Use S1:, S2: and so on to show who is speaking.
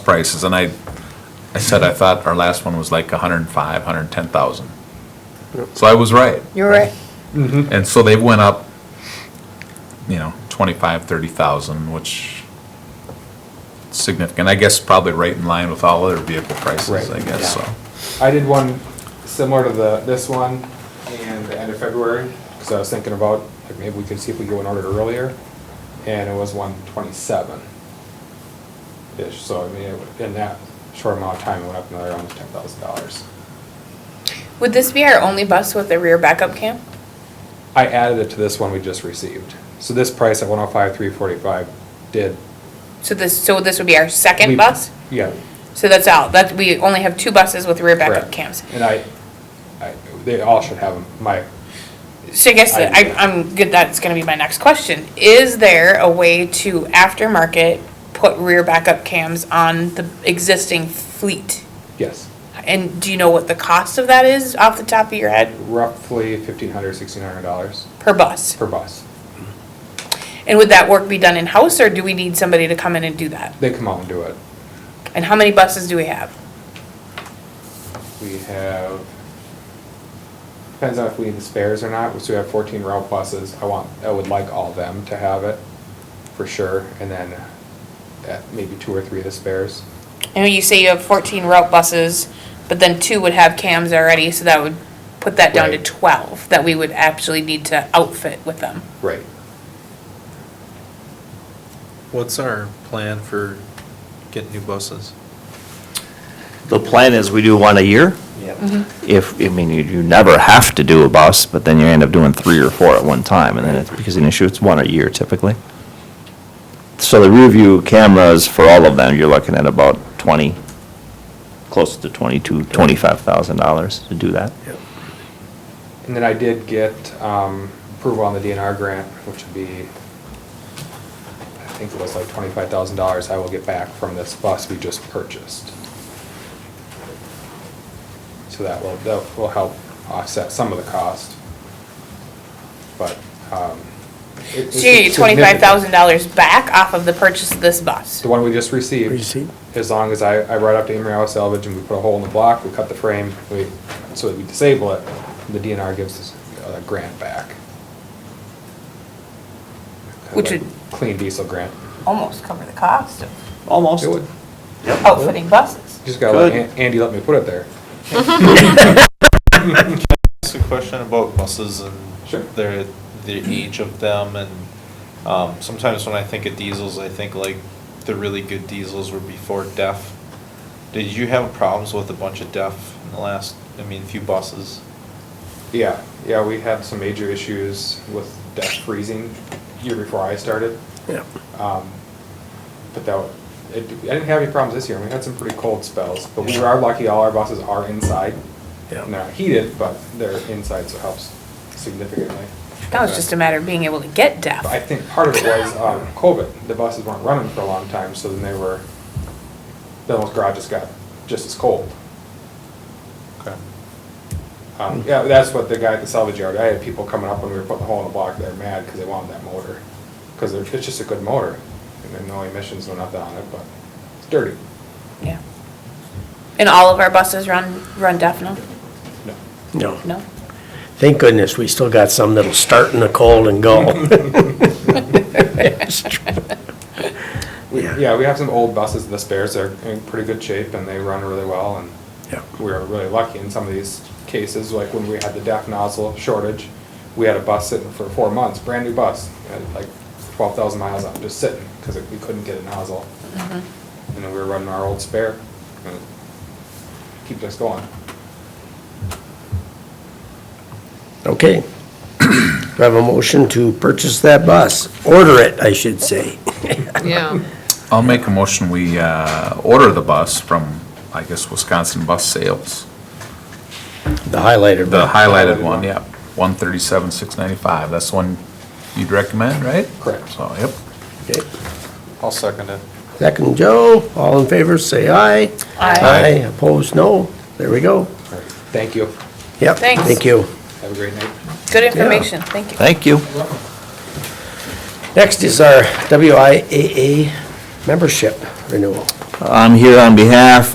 S1: prices, and I, I said I thought our last one was like a hundred and five, hundred and ten thousand. So I was right,
S2: You're right.
S3: Mm-hmm.
S1: and so they went up, you know, twenty-five, thirty thousand, which significant, I guess probably right in line with all other vehicle prices, I
S3: Right,
S1: guess,
S3: yeah.
S1: so.
S3: I did one similar to the, this one in the end of February, because I was thinking about, like, maybe we could see if we could go an order earlier, and it was one twenty-seven-ish, so I mean, it would- in that short amount of time, it went up another almost ten thousand dollars.
S4: Would this be our only bus with a rear backup cam?
S3: I added it to this one we just received, so this price at one oh five, three forty-five did.
S4: So this, so this would be our second
S3: we-
S4: bus?
S3: Yeah.
S4: So that's out, that, we only have two buses with rear backup
S3: correct.
S4: cams.
S3: And I, I, they all should have 'em. my,
S4: So I guess, that- I,
S3: I-
S4: I'm good, that's gonna be my next question. Is there a way to aftermarket put rear backup cams on the existing fleet?
S3: yes,
S4: And do you know what the cost of that is off the top of your head
S3: roughly fifteen hundred, sixteen hundred dollars
S4: per bus?
S3: per bus.
S4: And would that work be done in-house or do we need somebody to come in and do that?
S3: They come out and do it.
S4: And how many buses do we have?
S3: We have, depends on if we need the spares or not, so we have fourteen route buses, I want, I would like all of them to have it, for sure, and then uh, maybe two or three of the spares.
S4: And you say you have fourteen route buses, but then two would have cams already, so that would put that down to
S3: Right.
S4: twelve, that we would actually need to outfit with them.
S3: Right.
S5: What's our plan for getting new buses?
S6: The plan is we do one a year. If, I mean, you, you never have to do a bus, but then you end up doing three or four at one time, and then it's, because an issue, it's one a year typically. So the rear view cameras for all of them, you're looking at about twenty, close to twenty-two, twenty-five thousand dollars to do that.
S3: And then I did get um, approval on the DNR grant, which would be, I think it was like twenty-five thousand dollars I will get back from this bus we just purchased. So that will, that will help offset some of the cost. But, um. it-
S4: So you get
S3: it's
S4: twenty-five thousand dollars back off of the purchase of this bus.
S3: The one we just received. As long as I, I brought up to Emery Auto Salvage and we put a hole in the block, we cut the frame, we, so that we disable it, the DNR gives us a grant back.
S4: Which
S3: Like
S4: would-
S3: Clean diesel grant.
S4: Almost cover the cost of
S6: Almost.
S3: It would,
S4: outfitting buses.
S3: just gotta let
S6: Good.
S3: An- Andy let me put it there.
S5: Ask a question about buses and
S3: Sure.
S5: their, the age of them and, um, sometimes when I think of diesels, I think like the really good diesels were before DEF. Did you have problems with a bunch of DEF in the last, I mean, few buses?
S3: Yeah, yeah, we had some major issues with depth freezing year before I started.
S7: Yeah.
S3: Um, But that, it, I didn't have any problems this year. We had some pretty cold spells, but we are lucky all our buses are inside.
S7: Yeah.
S3: They're Not heated, but they're inside, so it helps significantly.
S4: That was just a matter of being able to get
S3: But I
S4: DEF.
S3: think part of it was, um, COVID. The buses weren't running for a long time, so then they were, then those garages got just as cold.
S5: Okay.
S3: Um, yeah, that's what the guy at the salvage yard, I had people coming up when we were putting the hole in the block, they're mad because they wanted that motor. Because it's just a good motor, and then no emissions, no nothing on it, but it's dirty.
S4: Yeah. And all of our buses run, run DEF now?
S3: No.
S7: No,
S4: No?
S7: thank goodness, we still got some that'll start in the cold and go. It's true.
S3: We-
S7: Yeah.
S3: Yeah, we have some old buses, the spares are in pretty good shape and they run really well and
S7: Yeah.
S3: we were really lucky in some of these cases, like when we had the DAF nozzle shortage, we had a bus sitting for four months, brand new bus, had like twelve thousand miles on, it, just sitting, because we couldn't get a nozzle. And then we were running our old spare and it kept us going.
S7: Okay. Do I have a motion to purchase that bus? Order it, I should say.
S2: Yeah.
S1: I'll make a motion, we, uh, order the bus from, I guess, Wisconsin Bus Sales,
S7: The highlighter.
S1: the
S7: bus.
S1: highlighted one, yeah, one thirty-seven, six ninety-five, that's the one you'd recommend, right?
S3: Correct.
S1: So, yep.
S7: Okay.
S5: I'll second it.
S7: Second, Joe, all in favor, say aye. Aye. Opposed, no. There we go.
S3: All right, Thank you,
S7: Yep.
S4: Thanks.
S7: Thank you.
S3: have a great night.
S4: Good information, thank you.
S6: Thank you.
S7: Next is our WIAA membership renewal.
S6: I'm here on behalf